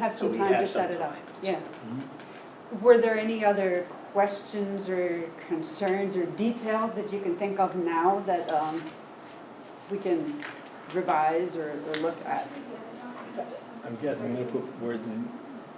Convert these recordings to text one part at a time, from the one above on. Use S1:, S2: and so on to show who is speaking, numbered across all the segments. S1: have
S2: So
S1: some
S2: we
S1: time to
S2: have
S1: set
S2: some
S1: it up,
S2: time.
S1: yeah. Were there any other questions or concerns or details that you can think of now that um, we can revise or or look at?
S3: I'm guessing, I'm gonna put words in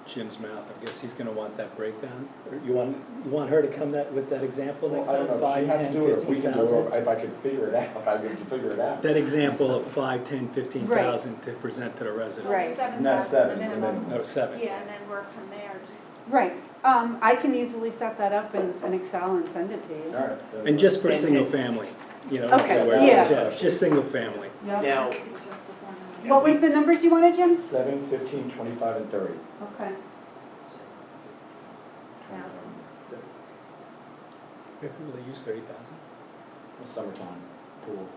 S3: Jim's mouth, I guess he's gonna want that breakdown, or you want, you want her to come that, with that example
S4: Well,
S3: next
S4: I
S3: time?
S4: don't know,
S3: Five,
S4: she has to
S3: ten,
S4: do it, or if we can do it, or
S3: 15,000?
S4: if I can figure it out, I can figure it out.
S3: That example of five, ten, fifteen thousand to present to the residents.
S1: Right.
S5: Seven
S4: And that's
S5: thousand,
S4: seven,
S5: the
S4: so
S5: minimum.
S4: then-
S3: Or seven.
S5: Yeah, and then work from there, just.
S1: Right, um, I can easily set that up in in Excel and send it to you.
S4: Alright.
S3: And just for
S2: And-
S3: single
S2: and-
S3: family, you know.
S1: Okay,
S3: that's where-
S1: yeah.
S3: Just single family.
S1: Yeah.
S3: Oh.
S2: Now,
S5: we could adjust the formula.
S1: What was the numbers you wanted, Jim?
S4: Seven, fifteen, twenty-five, and thirty.
S1: Okay.
S5: Thousand.
S3: Yeah, People that use thirty thousand.
S4: Summertime, pool.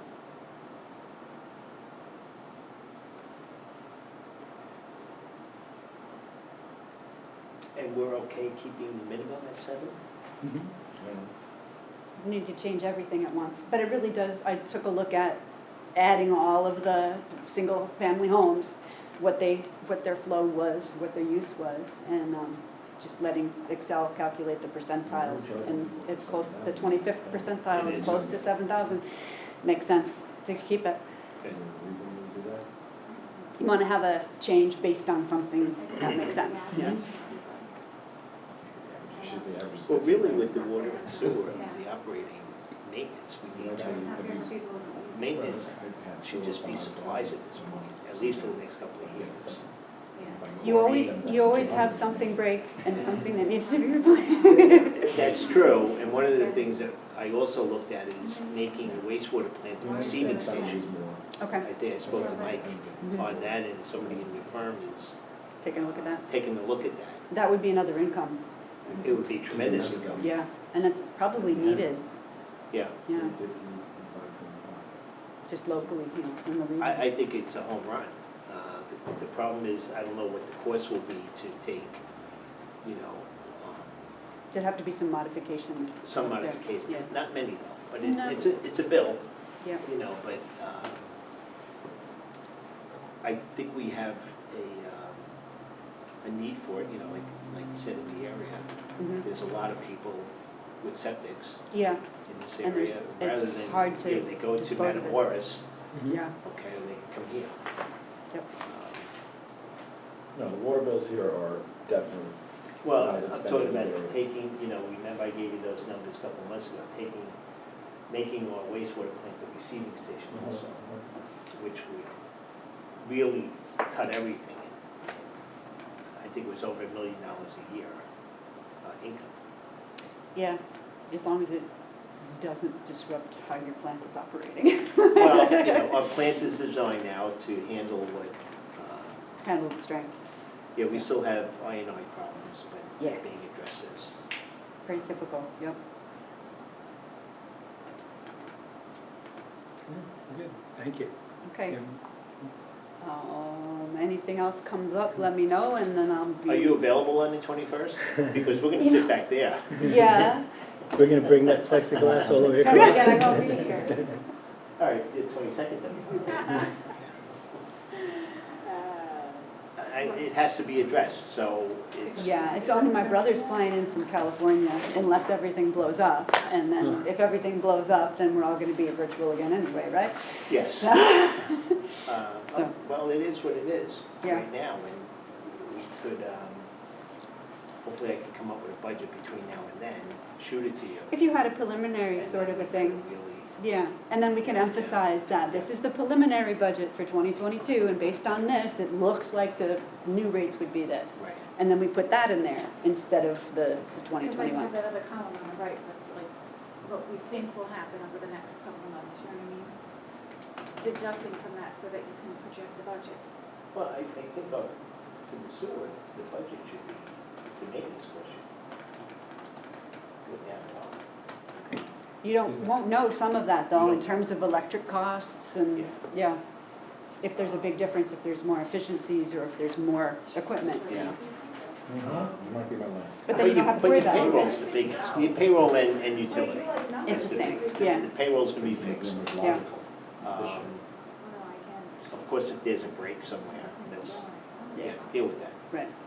S2: and we're okay keeping the minimum at seven?
S3: Mm-hmm.
S1: need to change everything at once, but it really does, I took a look at adding all of the single-family homes, what they, what their flow was, what their use was, and um, just letting Excel calculate the percentiles, and it's close, the 25th percentile is close to 7,000. Makes sense to keep it.
S4: Is there a reason we do that?
S1: You want to have a change based on something that makes sense, yeah.
S4: It Should be average.
S2: Well, really with the water and sewer, and the operating maintenance, we need to,
S5: Not very people.
S2: maintenance should just be supplies at this point, at least for the next couple of years.
S5: Yeah.
S1: You always, you always have something break and something that needs to be replaced.
S2: That's true, and one of the things that I also looked at is making the wastewater plant a receiving station.
S1: Okay,
S2: I think I spoke to Mike on that, and somebody in the firm is
S1: taking a look at that.
S2: taking a look at that.
S1: That would be another income,
S2: It would be tremendous income,
S1: yeah, and it's probably needed,
S2: yeah.
S1: yeah, just locally, you know, in the
S2: I,
S1: region.
S2: I think it's a home run. Uh, the- The problem is, I don't know what the cost will be to take, you know, um,
S1: There'd have to be some modification.
S2: some
S1: there.
S2: modification,
S1: Yeah,
S2: not many though, but
S1: No.
S2: it's, it's a, it's a bill,
S1: yeah,
S2: you know, but um, I think we have a, um, a need for it, you know, like, like you said, in the area.
S1: mhm.
S2: There's a lot of people with septics
S1: yeah,
S2: in this
S1: And
S2: area,
S1: there's- it's
S2: rather than,
S1: hard to
S2: you know, they go to
S1: dispose of it.
S2: Matamoras,
S1: yeah,
S2: okay, and they come here.
S1: Yep.
S2: Um,
S4: No, the water bills here are definitely,
S2: Well,
S4: not
S2: I'm
S4: as
S2: talking
S4: expensive
S2: about
S4: areas.
S2: taking, you know, remember I gave you those numbers a couple months ago, taking, making our wastewater plant the receiving station
S4: Mhm.
S2: also, which would really cut everything. I think it was over a million dollars a year uh, income.
S1: yeah, as long as it doesn't disrupt how your plant is operating,
S2: Well, you know, our plant is designed now to handle what, uh,
S1: handle the strength,
S2: yeah, we still have INI problems, but they're
S1: Yeah.
S2: being addressed as
S1: very typical, yep.
S3: Good, thank you.
S1: Okay,
S3: Jim.
S1: um, anything else comes up, let me know, and then I'll be.
S2: Are you available on the twenty-first? Because we're gonna sit back there.
S1: Yeah,
S3: We're gonna bring that plexiglass all the way
S1: Come
S3: across.
S1: again, I won't be here.
S2: All right, the twenty-second then. I- It has to be addressed, so it's.
S1: Yeah, it's only my brother's flying in from California unless everything blows up. And then if everything blows up, then we're all gonna be virtual again anyway, right?
S2: Yes. Uh,
S1: So-
S2: Well, it is what it is
S1: Yeah.
S2: right now, and we could, um, hopefully I could come up with a budget between now and then, shoot it to you.
S1: If you had a preliminary
S2: and
S1: sort of
S2: then
S1: a
S2: we
S1: thing,
S2: could really-
S1: yeah, and then we can emphasize that this is the preliminary budget for 2022 and based on this, it looks like the new rates would be this.
S2: Right.
S1: And then we put that in there instead of the the
S5: Because I have
S1: 2021.
S5: that other column on the right, but like, what we think will happen over the next couple of months, you know what I mean? Deducting from that so that you can project the budget.
S2: Well, I, I think of, for the sewer, the budget should be the maintenance budget. Go down a lot.
S1: You don't, won't know some of that though in terms of electric costs and,
S2: Yeah.
S1: yeah. If there's a big difference, if there's more efficiencies or if there's more equipment.
S2: Yeah.
S4: you might be my last.
S1: But then you don't have to worry
S2: But your
S1: about it.
S2: payroll's the biggest, your payroll and, and utility.
S1: It's the same,
S5: Oh,
S2: The-
S1: yeah.
S2: The payroll's gonna be fixed.
S1: Yeah.
S2: Um, Of course, if there's a break somewhere, that's, yeah, deal with that.
S1: right.